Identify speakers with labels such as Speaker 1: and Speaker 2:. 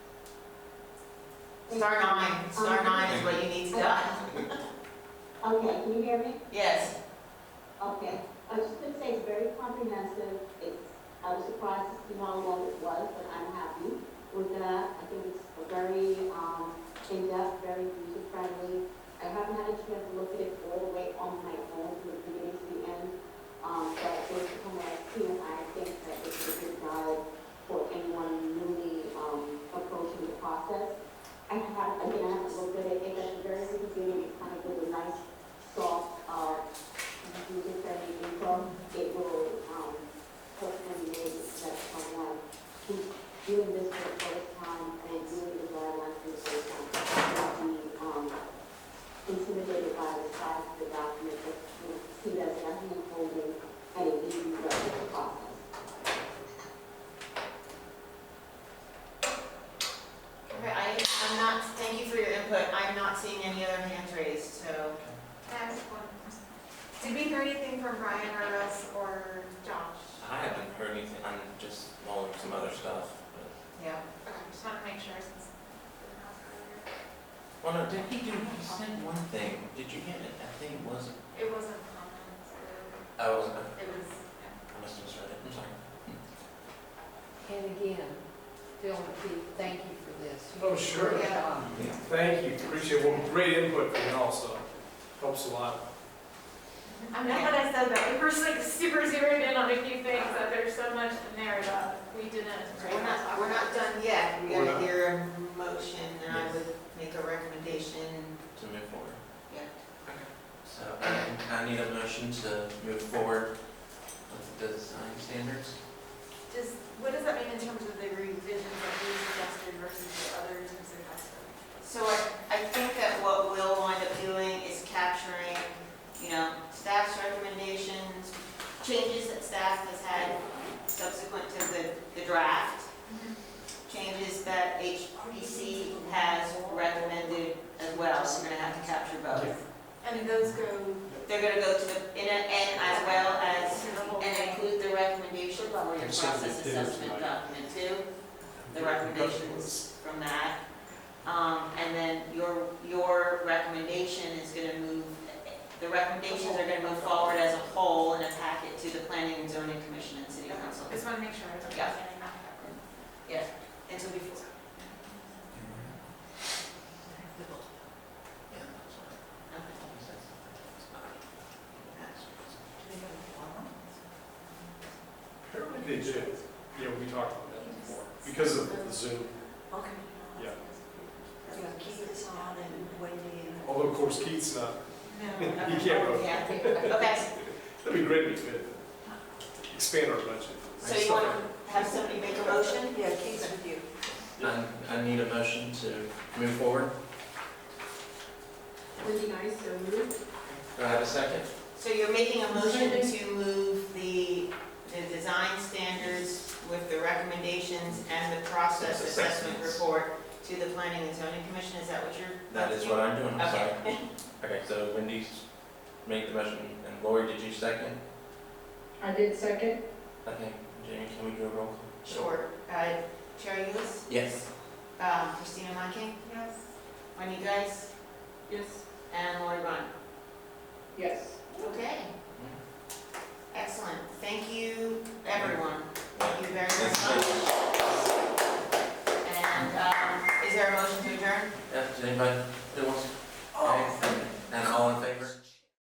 Speaker 1: Star nine,
Speaker 2: Um,
Speaker 1: star nine is what you need to done.
Speaker 3: Okay, can you hear me?
Speaker 1: Yes,
Speaker 3: Okay, I was just gonna say, it's very comprehensive, it's, I was surprised to see how long it was, but I'm happy with that. I think it's a very, um, in-depth, very user-friendly. I haven't had a chance to look at it all the way on my own from the beginning to the end, um, but based upon what I've seen, I think that it's a good guide for anyone newly, um, approaching the process. I have, again, I haven't looked at it, it's at the very beginning, it kind of gives a nice, soft, uh, user-friendly info, it will, um, hopefully make it that someone who's doing this for the first time and doing the guidelines for the first time, will be, um, intimidated by the size of the document, but will see that as nothing unfolding and it leads you throughout the process.
Speaker 1: okay, I, I'm not, thank you for your input, I'm not seeing any other hands raised, so.
Speaker 4: That's one. Did we hear anything from Brian or us or Josh?
Speaker 5: I haven't heard anything. I'm just mulling some other stuff.
Speaker 1: Yeah.
Speaker 4: Okay, just want to make sure since. we
Speaker 5: but- Well, no, did he do? He said one thing. Did you get it? That thing wasn't.
Speaker 4: didn't ask earlier. It wasn't comments or
Speaker 5: I wasn't.
Speaker 4: it was,
Speaker 5: I must have misread it. I'm sorry.
Speaker 6: And again, Phil, McKee, thank you for this.
Speaker 2: Oh, sure.
Speaker 6: Yeah.
Speaker 2: Thank you, appreciate it. Well, great input from you also. Helps a lot.
Speaker 4: I'm not gonna I said that, we were like super zeroed in on a few things, that there's so much in there that we didn't.
Speaker 1: We're not, we're not done yet, we
Speaker 2: We're
Speaker 1: gotta
Speaker 2: not.
Speaker 1: hear a motion, and I would make a recommendation.
Speaker 5: To move forward.
Speaker 1: Yeah.
Speaker 5: So I- I need a motion to move forward with the design standards.
Speaker 4: Just, what does that mean in terms of the revisions that we suggested versus the others who suggested?
Speaker 1: So I, I think that what we'll wind up doing is capturing, you know, staff's recommendations, changes that staff has had subsequent to the, the draft, changes that HPC has recommended as well, so we're gonna have to capture both.
Speaker 4: And those go
Speaker 1: They're gonna go to the, in a, and as well as,
Speaker 4: to the whole
Speaker 1: and
Speaker 4: thing?
Speaker 1: include the recommendation for your process assessment document too the recommendations from that. Um, and then your, your recommendation is gonna move, the recommendations are gonna move forward as a whole in a packet to the planning and zoning commission and city council.
Speaker 4: Just want to make sure I was
Speaker 1: Yeah.
Speaker 4: understanding that correctly.
Speaker 1: And so before,
Speaker 5: Yeah, that's fine.
Speaker 1: okay.
Speaker 5: He said something. It's not-
Speaker 2: Apparently they do. Yeah, we talked about that before. Because of the Zoom.
Speaker 7: Okay.
Speaker 2: Yeah.
Speaker 7: Yeah, keep this on and Wendy and.
Speaker 2: Although, of course, Keith's not,
Speaker 4: No.
Speaker 2: he can't vote.
Speaker 1: Yeah,
Speaker 6: Yeah.
Speaker 1: okay,
Speaker 2: That'd be great if we could expand our budget.
Speaker 1: so you wanna have somebody make a motion?
Speaker 7: Yeah, keep it with you.
Speaker 5: I, I need a motion to move forward.
Speaker 3: Would be nice to move.
Speaker 5: Do I have a second?
Speaker 1: So you're making a motion to move the, the design standards with the recommendations and the process assessment
Speaker 5: Assessments.
Speaker 1: report to the planning and zoning commission, is that what you're?
Speaker 5: That is what I'm doing. I'm sorry.
Speaker 1: Okay.
Speaker 5: Okay, so Wendy's made the motion, and Lori, did you second?
Speaker 6: I did second.
Speaker 5: Okay, Jamie, can we do a roll call?
Speaker 1: Sure. Uh, Chair Ulis,
Speaker 5: Yes.
Speaker 1: uh, Christina Monken,
Speaker 4: Yes.
Speaker 1: Wendy Geis,
Speaker 3: Yes.
Speaker 1: and Lori Bun.
Speaker 6: Yes.
Speaker 1: Okay. Excellent. Thank you, everyone. Thank you very
Speaker 5: Thank you.
Speaker 1: much. And um, is there a motion to adjourn?
Speaker 5: Yeah, does anybody, who wants to